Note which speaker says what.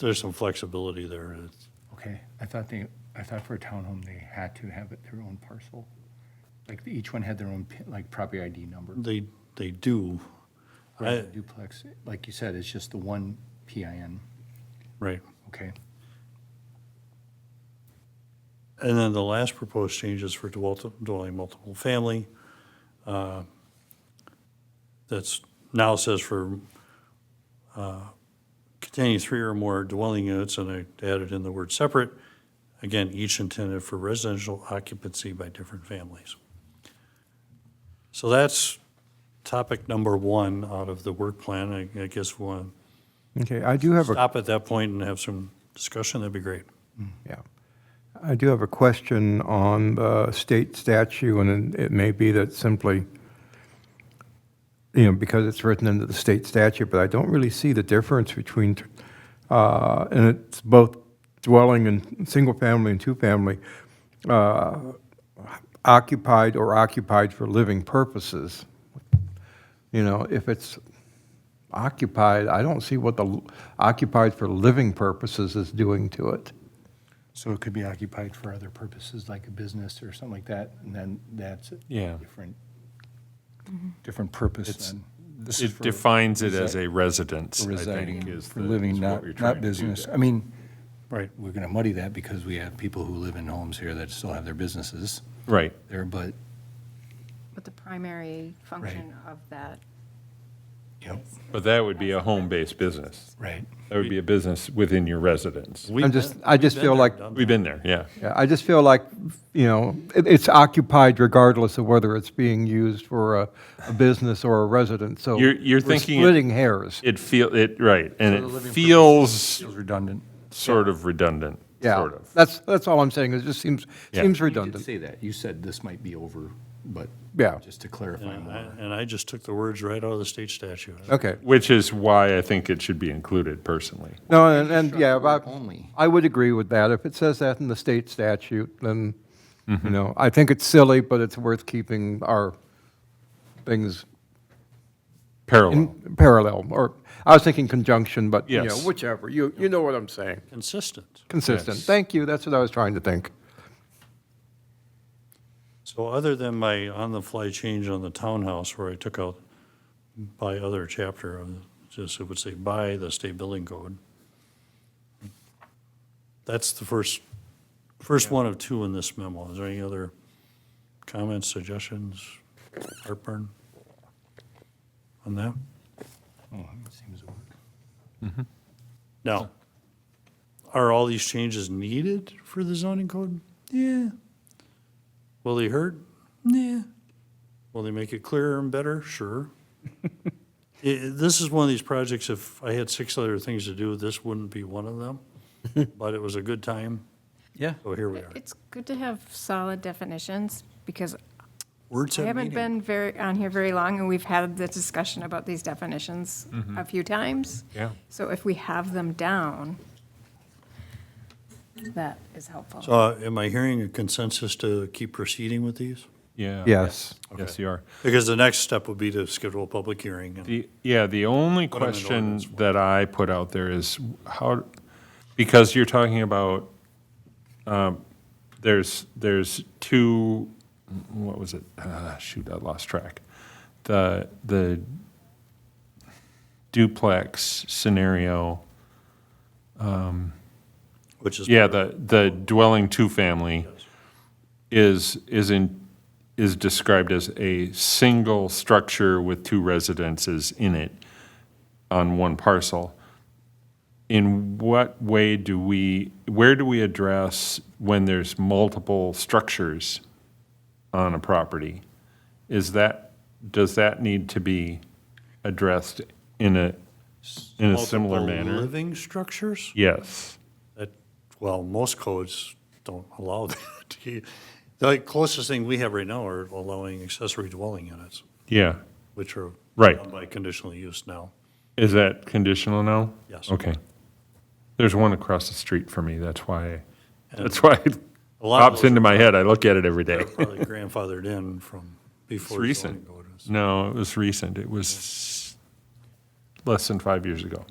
Speaker 1: there's some flexibility there. It's-
Speaker 2: Okay, I thought they, I thought for a townhome, they had to have it their own parcel. Like, each one had their own, pin- like, property ID number.
Speaker 1: They, they do. I-
Speaker 2: Duplex, like you said, it's just the one PIN,
Speaker 1: Right.
Speaker 2: okay?
Speaker 1: And then the last proposed change is for dwell- dwelling multiple family. uh, That's now says for uh, containing three or more dwelling units, and I added in the word separate. Again, each intended for residential occupancy by different families. So that's topic number one out of the work plan. I- I guess we'll
Speaker 3: Okay, I do have a,
Speaker 1: stop at that point and have some discussion. That'd be great.
Speaker 3: yeah. I do have a question on the state statute, and it may be that simply, you know, because it's written into the state statute, but I don't really see the difference between, uh, and it's both dwelling and single-family and two-family, uh, occupied or occupied for living purposes. You know, if it's occupied, I don't see what the l- occupied for living purposes is doing to it.
Speaker 2: So it could be occupied for other purposes, like a business or something like that, and then that's a
Speaker 4: Yeah.
Speaker 2: different, different purpose
Speaker 4: It's-
Speaker 2: then. This is
Speaker 4: It
Speaker 2: for
Speaker 4: defines it
Speaker 2: resi-
Speaker 4: as a residence, I think,
Speaker 2: Residing,
Speaker 4: is
Speaker 2: for
Speaker 4: the- is
Speaker 2: living,
Speaker 4: what
Speaker 2: not,
Speaker 4: you're trying
Speaker 2: not
Speaker 4: to do
Speaker 2: business.
Speaker 4: there.
Speaker 2: I mean,
Speaker 1: Right.
Speaker 2: we're gonna muddy that because we have people who live in homes here that still have their businesses
Speaker 4: Right.
Speaker 2: there, but,
Speaker 5: But the primary function of that
Speaker 2: yep,
Speaker 4: But that would be a home-based business.
Speaker 2: right.
Speaker 4: That would be a business within your residence.
Speaker 3: I'm just, I just feel like,
Speaker 4: We've been there, yeah.
Speaker 3: yeah, I just feel like, you know, it, it's occupied regardless of whether it's being used for a, a business or a residence, so.
Speaker 4: You're- you're
Speaker 3: we're
Speaker 4: thinking it-
Speaker 3: Splitting hairs.
Speaker 4: It feel, it, right, and it feels
Speaker 2: Feels redundant.
Speaker 4: sort of redundant,
Speaker 3: Yeah,
Speaker 4: sort of.
Speaker 3: that's, that's all I'm saying, it just seems,
Speaker 4: Yeah.
Speaker 3: seems
Speaker 2: You did
Speaker 3: redundant.
Speaker 2: say that. You said this might be over, but
Speaker 3: Yeah,
Speaker 2: just to clarify
Speaker 1: And I-
Speaker 2: more.
Speaker 1: and I just took the words right out of the state statute.
Speaker 3: okay.
Speaker 4: Which is why I think it should be included personally.
Speaker 3: No, and, and, yeah,
Speaker 2: Struck the word
Speaker 3: but
Speaker 2: only.
Speaker 3: I would agree with that. If it says that in the state statute, then, you
Speaker 4: Mm-hmm.
Speaker 3: know, I think it's silly, but it's worth keeping our things
Speaker 4: Parallel,
Speaker 3: in parallel, or, I was thinking conjunction, but, you know,
Speaker 4: Yes.
Speaker 3: whichever, you, you know what I'm saying.
Speaker 1: Consistent.
Speaker 3: Consistent,
Speaker 4: Yes.
Speaker 3: thank you, that's what I was trying to think.
Speaker 1: So other than my on-the-fly change on the townhouse where I took out by other chapter, of just it would say by the state building code. That's the first, first one of two in this memo. Is there any other comments, suggestions, heartburn on that?
Speaker 2: Oh, it seems to work.
Speaker 1: Now, are all these changes needed for the zoning code? Yeah. Will they hurt? Yeah. Will they make it clearer and better? Sure. I- I- This is one of these projects, if I had six other things to do, this wouldn't be one of them. But it was a good time. Yeah. So here we are.
Speaker 5: It's good to have solid definitions, because
Speaker 1: Words
Speaker 5: I
Speaker 1: have
Speaker 5: haven't
Speaker 1: meaning.
Speaker 5: been very, on here very long, and we've had the discussion about these definitions a few times.
Speaker 4: Yeah.
Speaker 5: So if we have them down, that is helpful.
Speaker 1: So uh, am I hearing a consensus to keep proceeding with these?
Speaker 4: yeah.
Speaker 3: Yes.
Speaker 4: Yes, you are.
Speaker 1: Because the next step would be to schedule a public hearing. and-
Speaker 4: The, yeah, the only
Speaker 1: Put 'em in
Speaker 4: question
Speaker 1: ordinance
Speaker 4: that I put out there is how, because you're talking about, um, there's, there's two, what was it? Ah, Shoot, I lost track. The, the duplex scenario,
Speaker 1: Which is.
Speaker 4: yeah, the, the dwelling two-family is, is in, is described as a single structure with two residences in it on one parcel. In what way do we, where do we address when there's multiple structures on a property? Is that, does that need to be addressed in a, in a similar
Speaker 1: multiple
Speaker 4: manner?
Speaker 1: Living structures?
Speaker 4: Yes.
Speaker 1: That, well, most codes don't allow that. You- The closest thing we have right now are allowing accessory dwelling units,
Speaker 4: Yeah.
Speaker 1: which are.
Speaker 4: Right.
Speaker 1: done By conditional use now.
Speaker 4: Is that conditional now?
Speaker 1: Yes.
Speaker 4: Okay. There's one across the street from me, that's why,
Speaker 1: And
Speaker 4: that's why it
Speaker 1: A lot of
Speaker 4: pops
Speaker 1: those
Speaker 4: into my head, I look at it every day.
Speaker 1: are Probably grandfathered in from before. zoning
Speaker 4: recent.
Speaker 1: code was-
Speaker 4: No, it was recent, it was less than five years ago.